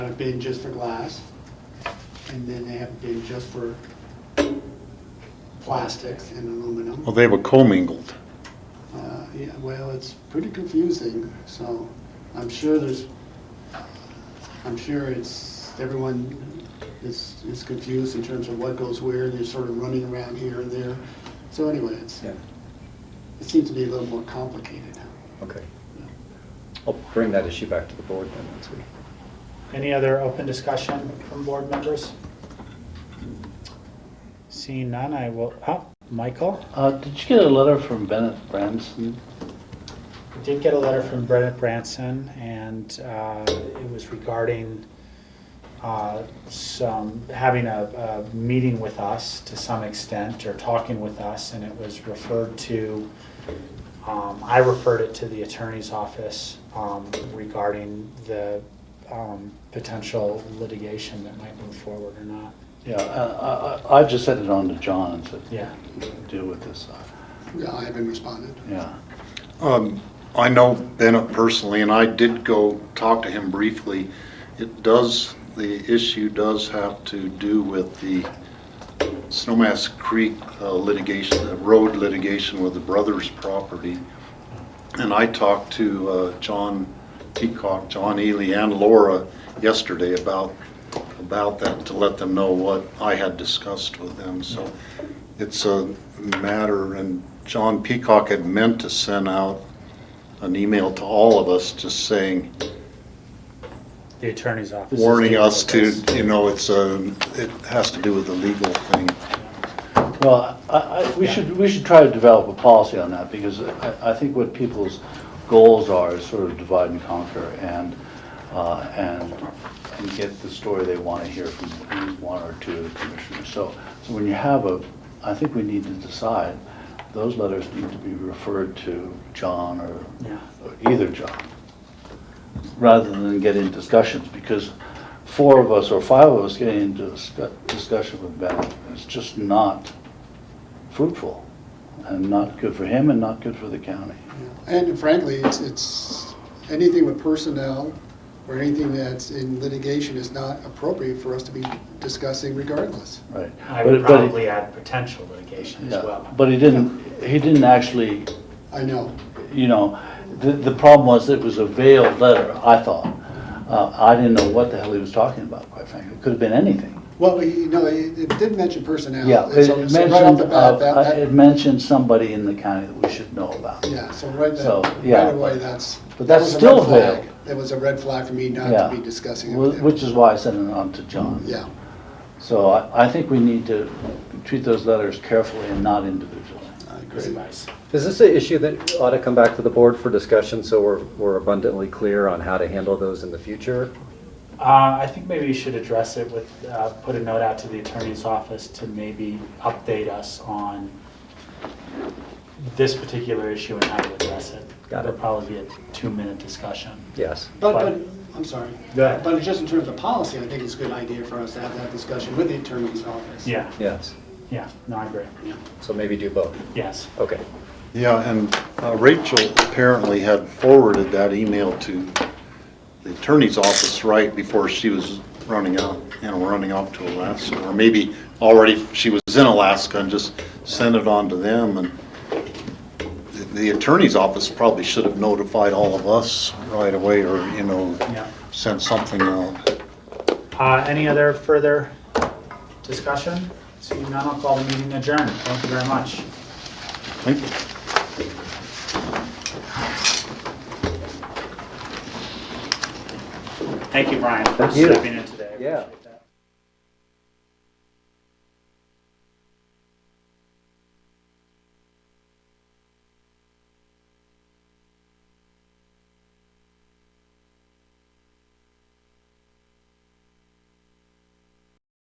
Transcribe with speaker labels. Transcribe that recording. Speaker 1: a bin just for glass, and then they have a bin just for plastics and aluminum.
Speaker 2: Well, they were commingled.
Speaker 1: Uh, Yeah, well, it's pretty confusing, so I'm sure there's, I'm sure it's, everyone is, is confused in terms of what goes where, and they're sort of running around here and there. So anyway, it's,
Speaker 3: Yeah,
Speaker 1: it seems to be a little more complicated.
Speaker 3: okay. I'll bring that issue back to the board then once we.
Speaker 4: Any other open discussion from board members? Seeing none, I will, oh, Michael,
Speaker 5: Uh, did you get a letter from Bennett Branson?
Speaker 4: I did get a letter from Brenna Branson, and uh, it was regarding uh, some, having a, a meeting with us to some extent, or talking with us, and it was referred to, um, I referred it to the attorney's office um, regarding the um, potential litigation that might move forward or not.
Speaker 5: Yeah, I, I, I just sent it on to John and said,
Speaker 4: Yeah.
Speaker 5: deal with this stuff.
Speaker 1: Yeah, I haven't responded.
Speaker 5: Yeah.
Speaker 2: Um, I know Bennett personally, and I did go talk to him briefly. It does, the issue does have to do with the Snowmass Creek uh, litigation, the road litigation with the Brothers property. And I talked to uh, John Peacock, John Ely, and Laura yesterday about, about that, to let them know what I had discussed with them, so it's a matter, and John Peacock had meant to send out an email to all of us just saying,
Speaker 4: The attorney's office. is
Speaker 2: warning
Speaker 4: dealing
Speaker 2: us
Speaker 4: with
Speaker 2: to,
Speaker 4: this.
Speaker 2: you know, it's a, it has to do with the legal thing.
Speaker 5: Well, I, I, we should, we should try to develop a policy on that because I, I think what people's goals are is sort of divide and conquer and, uh, and, and get the story they want to hear from one or two of the commissioners. So, so when you have a, I think we need to decide, those letters need to be referred to John or
Speaker 4: Yeah.
Speaker 5: or either job, rather than get in discussions, because four of us or five of us getting into a scu- discussion with Bennett is just not fruitful, and not good for him and not good for the county.
Speaker 1: And frankly, it's, it's, anything with personnel or anything that's in litigation is not appropriate for us to be discussing regardless.
Speaker 5: Right.
Speaker 4: I
Speaker 5: But-
Speaker 4: would
Speaker 5: but he-
Speaker 4: probably add potential litigation as
Speaker 5: yeah,
Speaker 4: well.
Speaker 5: But he didn't, he didn't actually,
Speaker 1: I know.
Speaker 5: you know, the, the problem was it was a veiled letter, I thought. Uh, I didn't know what the hell he was talking about, quite frankly. It could have been anything.
Speaker 1: Well, you know, it it did mention personnel.
Speaker 5: Yeah,
Speaker 1: And
Speaker 5: it
Speaker 1: so-
Speaker 5: it
Speaker 1: so right off
Speaker 5: mentioned,
Speaker 1: the bat, that-
Speaker 5: uh,
Speaker 1: that-
Speaker 5: it mentioned somebody in the county that we should know about.
Speaker 1: Yeah, so right
Speaker 5: So,
Speaker 1: then,
Speaker 5: yeah.
Speaker 1: right away, that's.
Speaker 5: But
Speaker 1: that
Speaker 5: that's
Speaker 1: was a
Speaker 5: still
Speaker 1: red flag.
Speaker 5: vague.
Speaker 1: That was a red flag for me not
Speaker 5: Yeah.
Speaker 1: to be discussing it with
Speaker 5: Wh-
Speaker 1: him.
Speaker 5: Which is why I sent it on to John.
Speaker 1: Yeah,
Speaker 5: So I, I think we need to treat those letters carefully and not individually.
Speaker 1: I
Speaker 4: Good
Speaker 1: agree.
Speaker 4: advice.
Speaker 3: Is this an issue that ought to come back to the board for discussion so we're, we're abundantly clear on how to handle those in the future?
Speaker 4: Uh, I think maybe you should address it with, uh, put a note out to the attorney's office to maybe update us on this particular issue and how to address it.
Speaker 3: Got it.
Speaker 4: It'll probably be a two-minute discussion.
Speaker 3: Yes.
Speaker 1: But,
Speaker 4: But-
Speaker 1: but, I'm sorry.
Speaker 4: Go ahead.
Speaker 1: But just in terms of policy, I think it's a good idea for us to have that discussion with the attorney's office.
Speaker 4: Yeah,
Speaker 3: Yes.
Speaker 4: yeah, no, I agree.
Speaker 3: So maybe do both.
Speaker 4: Yes.
Speaker 3: Okay.
Speaker 2: Yeah, and uh, Rachel apparently had forwarded that email to the attorney's office right before she was running out, you know, running off to Alaska, or maybe already she was in Alaska and just sent it on to them, and the- the attorney's office probably should have notified all of us right away, or, you know,
Speaker 4: Yeah.
Speaker 2: sent something out.
Speaker 4: Uh, any other further discussion? Seeing none, I'll call the meeting adjourned. Thank you very much.
Speaker 2: Thank you.
Speaker 4: Thank you, Brian, for
Speaker 3: Thank you.
Speaker 4: stepping in today.
Speaker 3: Yeah.